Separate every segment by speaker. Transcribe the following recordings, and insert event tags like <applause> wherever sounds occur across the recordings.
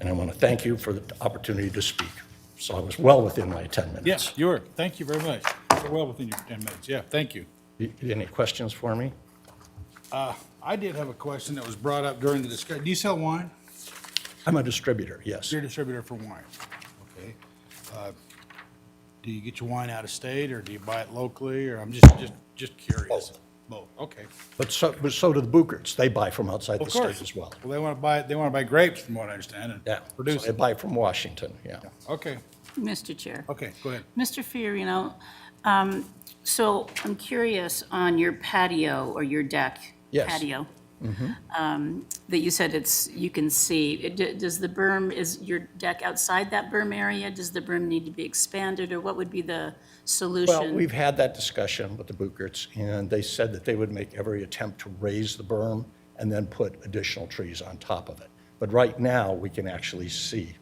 Speaker 1: and I want to thank you for the opportunity to speak. So I was well within my 10
Speaker 2: Yes,
Speaker 1: minutes.
Speaker 2: you are. Thank you very much. You're well within your 10 minutes. Yeah, thank you.
Speaker 1: Y- Any questions for me?
Speaker 2: Uh, I did have a question that was brought up during the discussion. Do you sell wine?
Speaker 1: I'm a distributor, yes.
Speaker 2: You're a distributor for wine. Okay. Uh, Do you get your wine out of state or do you buy it locally? Or I'm just, just, just curious.
Speaker 1: Both.
Speaker 2: Both, okay.
Speaker 1: But so, but so do the Bookerts. They buy from outside the
Speaker 2: Of course.
Speaker 1: state as well.
Speaker 2: Well, they want to buy, they want to buy grapes from what I understand
Speaker 1: Yeah.
Speaker 2: and
Speaker 1: So
Speaker 2: produce
Speaker 1: They
Speaker 2: it.
Speaker 1: buy from Washington, yeah.
Speaker 2: Okay,
Speaker 3: Mr. Chair.
Speaker 2: okay, go ahead.
Speaker 3: Mr. Fiorino, um, so I'm curious on your patio or your deck.
Speaker 1: Yes. Mm-hmm.
Speaker 3: Patio. um, That you said it's, you can see, It- d- does the berm, is your deck outside that berm area? Does the berm need to be expanded, or what would be the solution?
Speaker 1: Well, we've had that discussion with the Bookerts, and they said that they would make every attempt to raise the berm and then put additional trees on top of it. But right now, we can actually see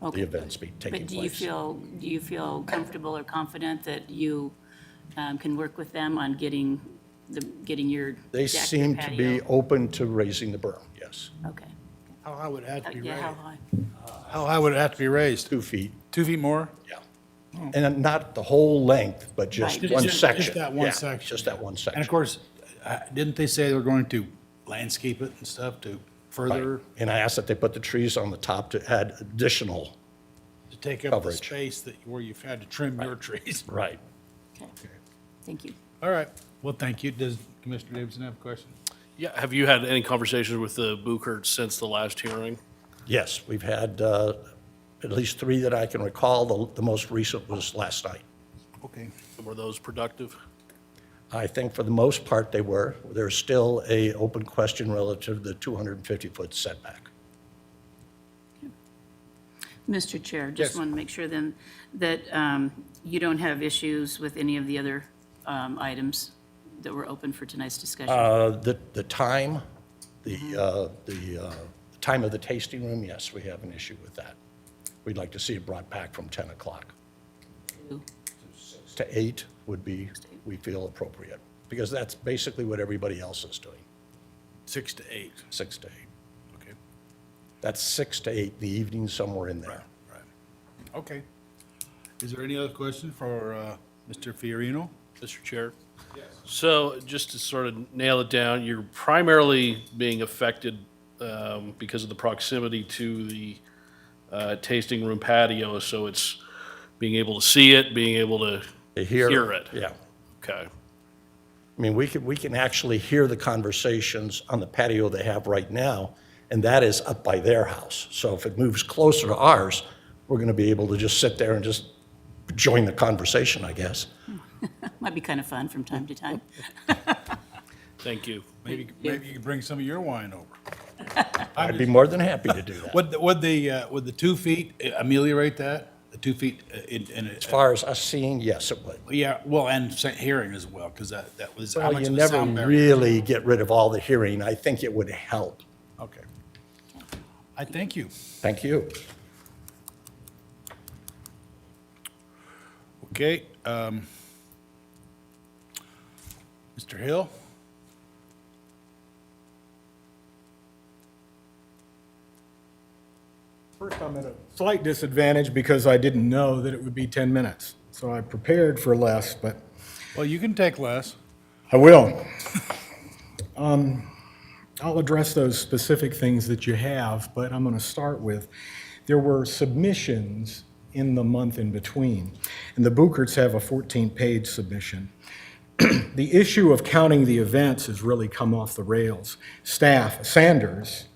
Speaker 1: the
Speaker 3: Okay.
Speaker 1: events be taking
Speaker 3: But do you
Speaker 1: place.
Speaker 3: feel, do you feel comfortable or confident that you um, can work with them on getting, the getting your deck,
Speaker 1: They
Speaker 3: your
Speaker 1: seem to be
Speaker 3: patio?
Speaker 1: open to raising the berm, yes.
Speaker 3: Okay.
Speaker 2: How high would it have to be
Speaker 3: Yeah,
Speaker 2: raised?
Speaker 3: how high?
Speaker 2: How high would it have to be raised?
Speaker 1: Two feet,
Speaker 2: Two feet more?
Speaker 1: yeah. And not the whole length, but just
Speaker 3: Right.
Speaker 1: one
Speaker 2: Just- just
Speaker 1: section.
Speaker 2: that one
Speaker 1: Yeah,
Speaker 2: section.
Speaker 1: Just that one section.
Speaker 2: And of course, I- didn't they say they were going to landscape it and stuff to further,
Speaker 1: And I asked that they put the trees on the top to add additional,
Speaker 2: to take up the
Speaker 1: Coverage.
Speaker 2: space that, where you've had to trim your trees? <laughs>
Speaker 1: right.
Speaker 3: Okay, thank you.
Speaker 2: All right, well, thank you. Does Commissioner Davidson have a question?
Speaker 4: Yeah, have you had any conversations with the Bucherts since the last hearing?
Speaker 1: Yes, we've had uh, at least three that I can recall. The- The most recent was last night.
Speaker 2: Okay.
Speaker 4: Were those productive?
Speaker 1: I think for the most part, they were. There's still a open question relative to the 250-foot setback.
Speaker 3: Mr. Chair,
Speaker 2: Yes.
Speaker 3: just want to make sure then that um, you don't have issues with any of the other um, items that were open for tonight's discussion?
Speaker 1: Uh, The the time, the uh, the uh, time of the tasting room, yes, we have an issue with that. We'd like to see it brought back from 10 o'clock. To 8 would be, we feel appropriate, because that's basically what everybody else is doing,
Speaker 2: Six to eight,
Speaker 1: 6 to 8.
Speaker 2: okay,
Speaker 1: That's six to eight in the evening, somewhere in there.
Speaker 2: right. Okay. Is there any other question for uh, Mr. Fiorino?
Speaker 4: Mr. Chair? Yes. So just to sort of nail it down, you're primarily being affected um, because of the proximity to the uh, tasting room patio, so it's being able to see it, being able to
Speaker 1: To
Speaker 4: hear it.
Speaker 1: Yeah.
Speaker 4: Okay,
Speaker 1: I mean, we can, we can actually hear the conversations on the patio they have right now, and that is up by their house. So if it moves closer to ours, we're going to be able to just sit there and just join the conversation, I guess.
Speaker 3: Might be kind of fun from time to time.
Speaker 4: thank you.
Speaker 2: Maybe, maybe you could bring some of your wine over.
Speaker 1: I'd be more than happy
Speaker 2: <laughs>
Speaker 1: to do that.
Speaker 2: Would, the- would the, uh, would the two feet ameliorate that? The two feet uh, in, in a-
Speaker 1: As far as us seeing, yes, it would.
Speaker 2: yeah, well, and sa- hearing as well, because that, that was, how
Speaker 1: Well,
Speaker 2: much
Speaker 1: you
Speaker 2: of a
Speaker 1: never
Speaker 2: sound barrier?
Speaker 1: really get rid of all the hearing. I think it would help.
Speaker 2: Okay. I thank you.
Speaker 1: Thank you.
Speaker 2: Okay. um, Mr. Hill?
Speaker 5: First, I'm at a slight disadvantage because I didn't know that it would be 10 minutes. So I prepared for less, but
Speaker 2: Well, you can take less.
Speaker 5: I will. <laughs> Um, I'll address those specific things that you have, but I'm going to start with, there were submissions in the month in between, and the Bookerts have a 14-page submission. <clears throat> The issue of counting the events has really come off the rails. Staff, Sanders,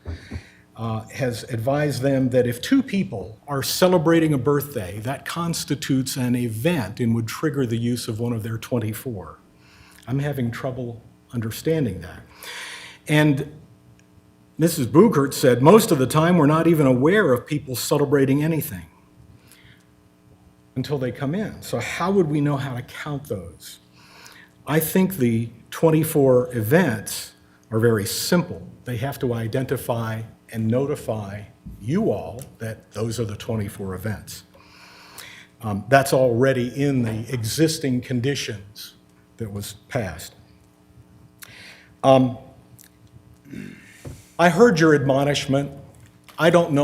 Speaker 5: uh, has advised them that if two people are celebrating a birthday, that constitutes an event and would trigger the use of one of their 24. I'm having trouble understanding that. And Mrs. Bugert said, most of the time, we're not even aware of people celebrating anything until they come in. So how would we know how to count those? I think the 24 events are very simple. They have to identify and notify you all that those are the 24 events. Um, That's already in the existing conditions that was passed. Um, I heard your admonishment. I don't know